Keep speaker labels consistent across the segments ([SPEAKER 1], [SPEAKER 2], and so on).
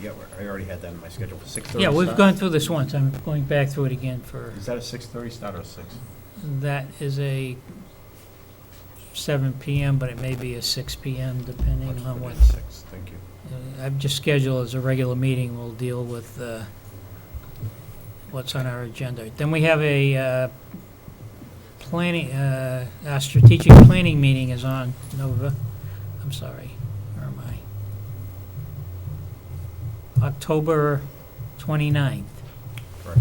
[SPEAKER 1] yeah, I already had that in my schedule, six thirty
[SPEAKER 2] Yeah,
[SPEAKER 1] start?
[SPEAKER 2] we've gone through this once, I'm going back through it again for,
[SPEAKER 1] Is that a six thirty start or six?
[SPEAKER 2] that is a seven PM, but it may be a six PM, depending
[SPEAKER 1] Let's
[SPEAKER 2] on
[SPEAKER 1] put
[SPEAKER 2] what,
[SPEAKER 1] it at Six, thank you.
[SPEAKER 2] Uh, I've just scheduled as a regular meeting, we'll deal with uh, what's on our agenda. Then we have a uh, planning, uh, our strategic planning meeting is on Nova, I'm sorry, where am I? October 29th.
[SPEAKER 1] Correct.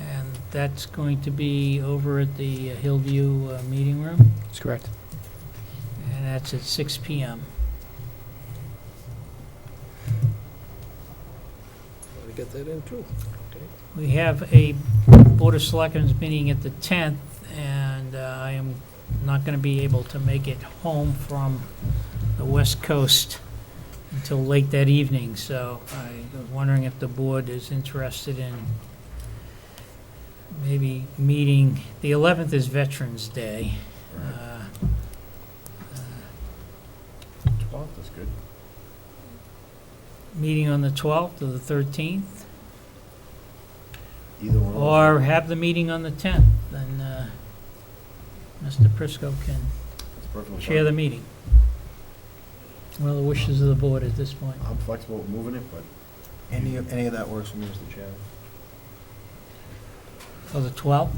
[SPEAKER 2] And that's going to be over at the Hillview uh, Meeting Room,
[SPEAKER 3] That's correct.
[SPEAKER 2] and that's at 6 PM.
[SPEAKER 4] Gotta get that in too.
[SPEAKER 2] We have a Board of Selectmen's meeting at the 10th, and uh, I am not going to be able to make it home from the West Coast until late that evening, so I was wondering if the board is interested in maybe meeting, the 11th is Veterans Day.
[SPEAKER 1] Right.
[SPEAKER 2] Uh,
[SPEAKER 1] Twelve is good.
[SPEAKER 2] meeting on the 12th or the 13th,
[SPEAKER 1] Either one. of those.
[SPEAKER 2] or have the meeting on the 10th, then uh, Mr. Prisco can
[SPEAKER 1] It's perfectly
[SPEAKER 2] chair the
[SPEAKER 1] fine.
[SPEAKER 2] meeting. Well, the wishes of the board at this point.
[SPEAKER 1] I'm flexible with moving it, but.
[SPEAKER 3] Any of-
[SPEAKER 1] any of that works for me, Mr. Chairman.
[SPEAKER 2] For the 12th,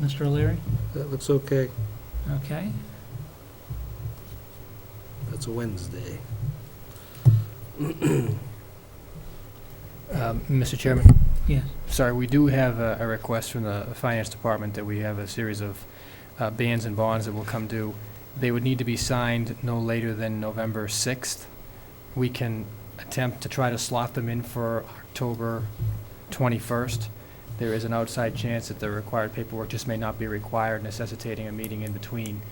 [SPEAKER 2] Mr. O'Leary?
[SPEAKER 4] That looks okay.
[SPEAKER 2] Okay.
[SPEAKER 4] That's a Wednesday.
[SPEAKER 3] Um, Mr. Chairman,
[SPEAKER 2] Yes.
[SPEAKER 3] sorry, we do have a a request from the Finance Department that we have a series of uh, bans and bonds that will come due. They would need to be signed no later than November 6th. We can attempt to try to slot them in for October 21st. There is an outside chance that the required paperwork just may not be required, necessitating a meeting in between.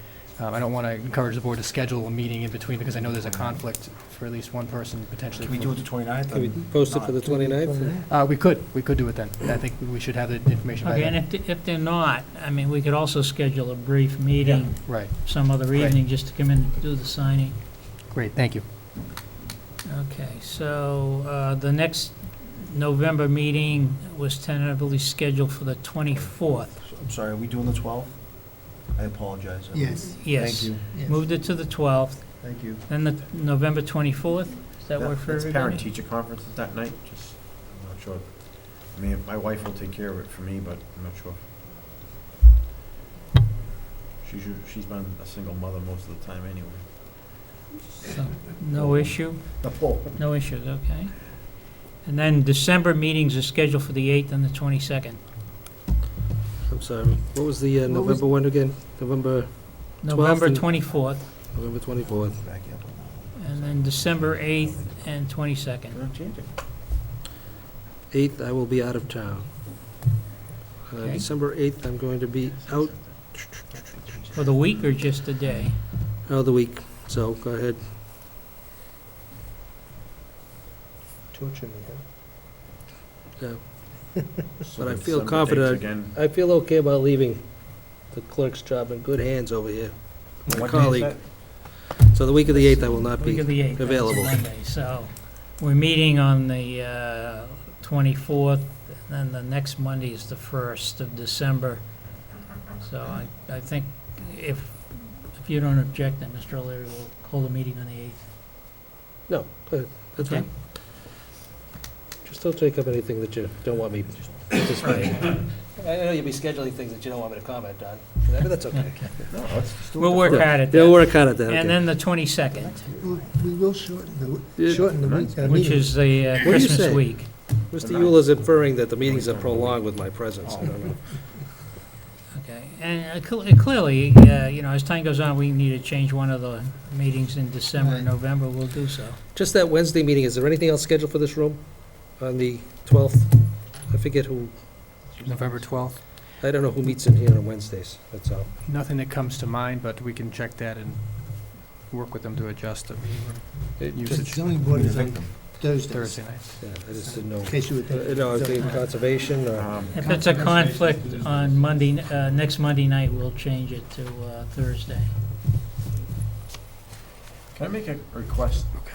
[SPEAKER 3] Um, I don't want to encourage the board to schedule a meeting in between because I know there's a conflict for at least one person potentially. from-
[SPEAKER 1] the twenty-ninth?
[SPEAKER 4] Can we post it for the 29th?
[SPEAKER 3] Uh, we could, we could do it then. I think we should have the information by
[SPEAKER 2] Okay, and
[SPEAKER 3] then.
[SPEAKER 2] if, th- if they're not, I mean, we could also schedule a brief meeting
[SPEAKER 3] Right,
[SPEAKER 2] some other
[SPEAKER 3] Right.
[SPEAKER 2] evening just to come in and do the signing.
[SPEAKER 3] great, thank you.
[SPEAKER 2] Okay, so uh, the next November meeting was tentatively scheduled for the 24th.
[SPEAKER 1] I'm sorry, are we doing the twelfth? I apologize.
[SPEAKER 5] Yes.
[SPEAKER 2] Yes.
[SPEAKER 1] you,
[SPEAKER 2] Moved it to the 12th,
[SPEAKER 1] thank you.
[SPEAKER 2] then the November 24th? Does that work for
[SPEAKER 1] It's
[SPEAKER 2] everybody?
[SPEAKER 1] parent-teacher conferences that night, just, I'm not sure. I mean, my wife will take care of it for me, but I'm not sure. She's, u- she's been a single mother most of the time anyway.
[SPEAKER 2] So, No issue,
[SPEAKER 1] The whole.
[SPEAKER 2] no issues, okay. And then December meetings are scheduled for the 8th and the 22nd.
[SPEAKER 4] I'm sorry. What was the uh,
[SPEAKER 5] What was-
[SPEAKER 4] November one again? November,
[SPEAKER 2] November
[SPEAKER 4] and-
[SPEAKER 2] 24th,
[SPEAKER 4] November 24th.
[SPEAKER 2] and then December 8th and 22nd.
[SPEAKER 1] Gonna change it.
[SPEAKER 4] 8th, I will be out of town. Uh,
[SPEAKER 2] Okay.
[SPEAKER 4] December 8th, I'm going to be out
[SPEAKER 2] For the week or just the day?
[SPEAKER 4] of the week, so go ahead. Yeah.
[SPEAKER 1] So
[SPEAKER 4] But I
[SPEAKER 1] the December
[SPEAKER 4] feel
[SPEAKER 1] dates
[SPEAKER 4] confident-
[SPEAKER 1] Again.
[SPEAKER 4] I feel okay about leaving the clerk's job in good hands over here.
[SPEAKER 1] What day
[SPEAKER 4] My
[SPEAKER 1] is
[SPEAKER 4] colleague.
[SPEAKER 1] that?
[SPEAKER 4] So the week of the 8th, I will not
[SPEAKER 2] Week
[SPEAKER 4] be.
[SPEAKER 2] of the 8th, that's a
[SPEAKER 4] available.
[SPEAKER 2] Monday. So we're meeting on the uh, 24th, and the next Monday is the 1st of December. So I, I think if, if you don't object, then Mr. O'Leary will hold a meeting on the 8th.
[SPEAKER 4] No, go ahead. That's
[SPEAKER 2] Okay.
[SPEAKER 4] fine. Just don't take up anything that you don't want me participating. I I know you'll be scheduling things that you don't want me to comment on, but that's okay.
[SPEAKER 1] No, let's just do it.
[SPEAKER 2] We'll
[SPEAKER 1] the
[SPEAKER 2] work
[SPEAKER 1] first.
[SPEAKER 2] out at
[SPEAKER 4] They'll
[SPEAKER 2] that.
[SPEAKER 4] work out at that,
[SPEAKER 2] And
[SPEAKER 4] okay.
[SPEAKER 2] then the 22nd,
[SPEAKER 5] We'll- We will shorten the,
[SPEAKER 4] Yeah.
[SPEAKER 5] w- shorten the week. uh,
[SPEAKER 2] which
[SPEAKER 5] meeting.
[SPEAKER 2] is the uh,
[SPEAKER 4] do you
[SPEAKER 2] Christmas
[SPEAKER 4] say?
[SPEAKER 2] week.
[SPEAKER 4] Mr. Yule is inferring that the meetings are prolonged with my presence. I don't know.
[SPEAKER 2] Okay, and uh, cl- uh, clearly, uh, you know, as time goes on, we need to change one of the meetings in December and
[SPEAKER 5] Right.
[SPEAKER 2] November, we'll do so.
[SPEAKER 4] Just that Wednesday meeting, is there anything else scheduled for this room on the 12th? I forget who,
[SPEAKER 3] November 12th,
[SPEAKER 4] I don't know who meets in here on Wednesdays, that's all.
[SPEAKER 3] nothing that comes to mind, but we can check that and work with them to adjust the meeting room
[SPEAKER 4] It
[SPEAKER 5] The
[SPEAKER 3] usage
[SPEAKER 5] zoning board is on Thursdays,
[SPEAKER 3] Thursday night.
[SPEAKER 4] Yeah, I just didn't know.
[SPEAKER 5] in case you were
[SPEAKER 4] Uh,
[SPEAKER 5] thinking.
[SPEAKER 4] No, I was thinking conservation or,
[SPEAKER 1] Um,
[SPEAKER 2] If it's a conflict on Monday, uh, next Monday night, we'll change it to uh, Thursday.
[SPEAKER 1] Can I make a request?